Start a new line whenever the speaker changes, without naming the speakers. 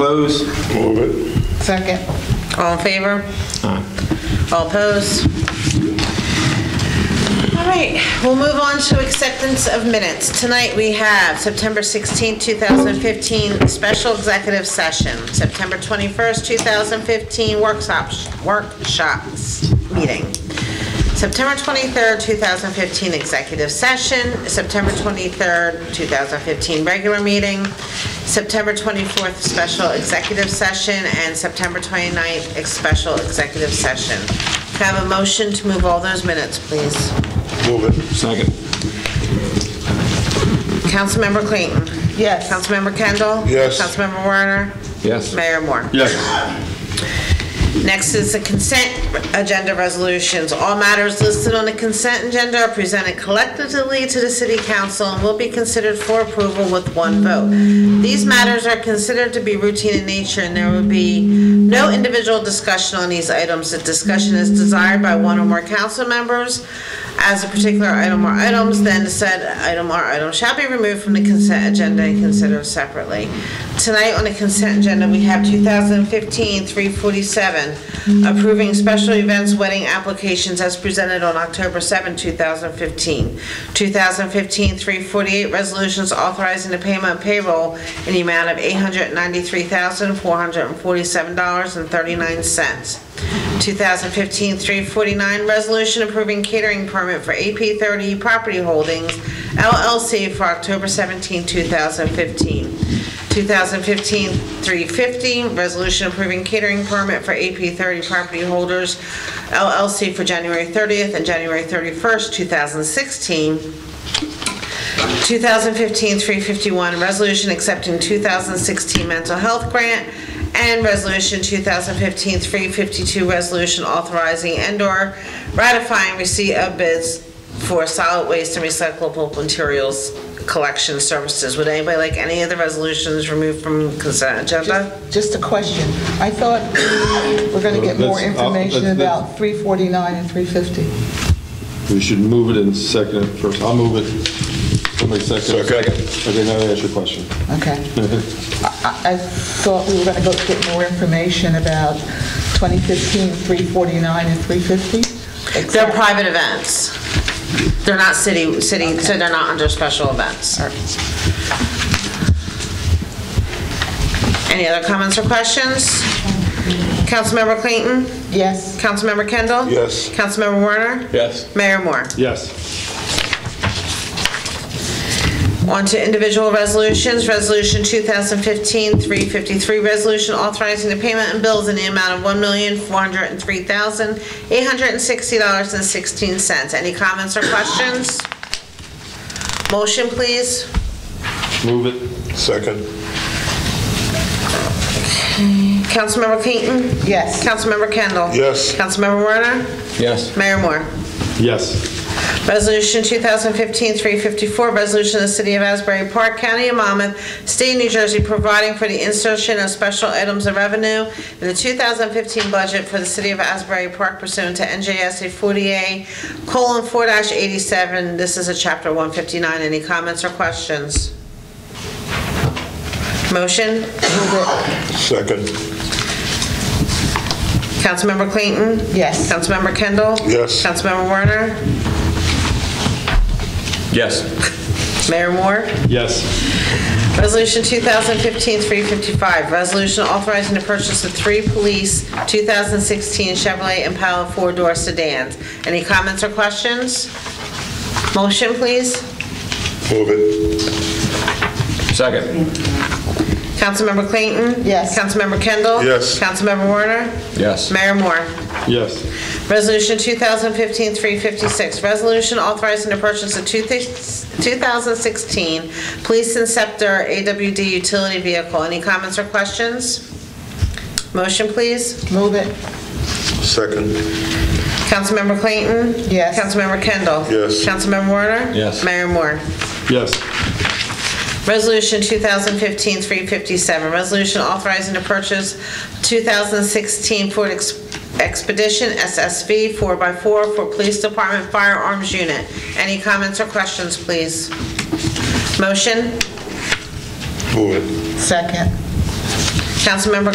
Close.
Move it.
Second.
All in favor? All opposed? All right, we'll move on to acceptance of minutes. Tonight, we have September 16, 2015, special executive session, September 21st, 2015, workshops, workshops meeting, September 23rd, 2015, executive session, September 23rd, 2015, regular meeting, September 24th, special executive session, and September 29th, ex- special executive session. Can I have a motion to move all those minutes, please?
Move it.
Second.
Councilmember Clayton?
Yes.
Councilmember Kendall?
Yes.
Councilmember Warner?
Yes.
Mayor Moore?
Yes.
Next is the consent agenda resolutions. All matters listed on the consent agenda are presented collectively to the city council and will be considered for approval with one vote. These matters are considered to be routine in nature, and there will be no individual discussion on these items. The discussion is desired by one or more council members as a particular item or items, then said item or item shall be removed from the consent agenda and considered separately. Tonight on the consent agenda, we have 2015-347, approving special events wedding applications as presented on October 7, 2015. 2015-348, resolutions authorizing the payment of payroll in the amount of $893,447.39. 2015-349, resolution approving catering permit for AP30 Property Holdings LLC for October 17, 2015. 2015-350, resolution approving catering permit for AP30 Property Holders LLC for January 30th and January 31st, 2016. 2015-351, resolution accepting 2016 mental health grant, and resolution 2015-352, resolution authorizing and/or ratifying receipt of bids for solid waste and recyclable materials collection services. Would anybody like any of the resolutions removed from consent agenda?
Just a question. I thought we we're going to get more
Let's- I'll- let's-
information
let's-
about 349 and 350.
We should move it in second at first. I'll move it. Somebody second.
Second.
Okay, now I ask your question.
Okay. I I- I thought we were going to go get more information about 2015, 349 and 350.
They're private events. They're not city, city, so they're not under special events. Any other comments or questions? Councilmember Clayton?
Yes.
Councilmember Kendall?
Yes.
Councilmember Warner?
Yes.
Mayor Moore?
Yes.
On to individual resolutions. Resolution 2015-353, resolution authorizing the payment and bills in the amount of $1,403,860.16. Any comments or questions? Motion, please.
Move it.
Second.
Councilmember Clayton?
Yes.
Councilmember Kendall?
Yes.
Councilmember Warner?
Yes.
Mayor Moore?
Yes.
Resolution 2015-354, resolution of the City of Asbury Park, County of Monmouth, State of New Jersey, providing for the insertion of special items of revenue in the 2015 budget for the City of Asbury Park pursuant to NJSA 48:4-87. This is a Chapter 159. Any comments or questions? Motion?
Second.
Councilmember Clayton?
Yes.
Councilmember Kendall?
Yes.
Councilmember Warner?
Yes.
Mayor Moore?
Yes.
Resolution 2015-355, resolution authorizing the purchase of three police 2016 Chevrolet Impala four-door sedans. Any comments or questions? Motion, please.
Move it.
Second.
Councilmember Clayton?
Yes.
Councilmember Kendall?
Yes.
Councilmember Warner?
Yes.
Mayor Moore?
Yes.
Resolution 2015-356, resolution authorizing the purchase of two thi- 2016 Police Inceptor AWD utility vehicle. Any comments or questions? Motion, please.
Move it.
Second.
Councilmember Clayton?
Yes.
Councilmember Kendall?
Yes.
Councilmember Warner?
Yes.
Mayor Moore?
Yes.
Resolution 2015-357, resolution authorizing the purchase 2016 Ford Ex- Expedition SSV 4x4 for Police Department Firearms Unit. Any comments or questions, please? Motion?
Move it.
Second.
Councilmember